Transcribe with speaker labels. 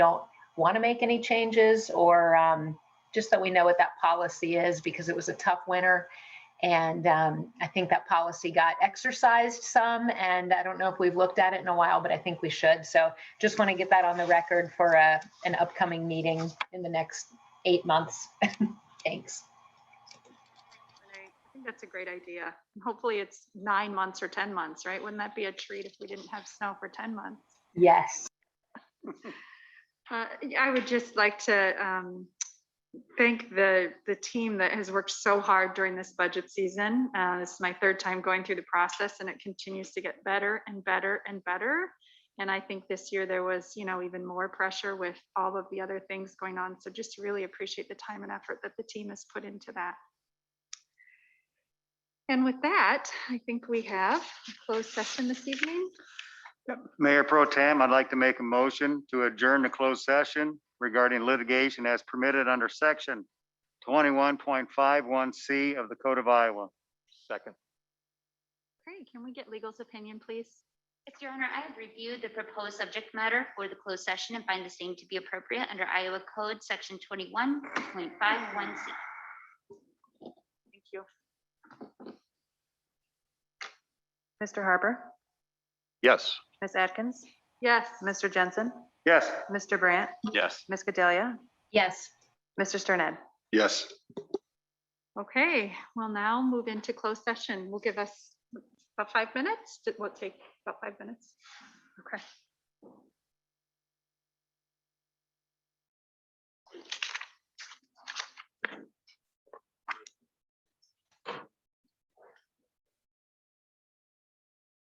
Speaker 1: don't want to make any changes or um, just that we know what that policy is because it was a tough winter. And um, I think that policy got exercised some, and I don't know if we've looked at it in a while, but I think we should. So just want to get that on the record for a, an upcoming meeting in the next eight months. Thanks.
Speaker 2: And I I think that's a great idea. And Hopefully it's nine months or 10 months, right? Wouldn't that be a treat if we didn't have snow for 10 months?
Speaker 1: Yes.
Speaker 2: Uh, yeah, I would just like to um, thank the, the team that has worked so hard during this budget season. Uh, This is my third time going through the process and it continues to get better and better and better. And I think this year there was, you know, even more pressure with all of the other things going on. So just really appreciate the time and effort that the team has put into that. And with that, I think we have a closed session this evening.
Speaker 3: Mayor Pro Tem, I'd like to make a motion to adjourn the closed session regarding litigation as permitted under section twenty-one point five one C of the Code of Iowa. Second.
Speaker 2: Great, can we get legal's opinion, please?
Speaker 4: Yes, Your Honor, I have reviewed the proposed subject matter for the closed session and find the same to be appropriate under Iowa Code, Section 21.51C.
Speaker 2: Thank you. Mr. Harper,
Speaker 3: Yes.
Speaker 2: Ms. Atkins? Yes. Mr. Jensen,
Speaker 3: Yes.
Speaker 2: Mr. Brandt,
Speaker 3: Yes.
Speaker 2: Ms. Cadelia,
Speaker 1: Yes.
Speaker 2: Mr. Sterned.
Speaker 3: Yes.
Speaker 2: Okay, we'll now move into closed session. We'll give us about five minutes. It will take about five minutes. Okay.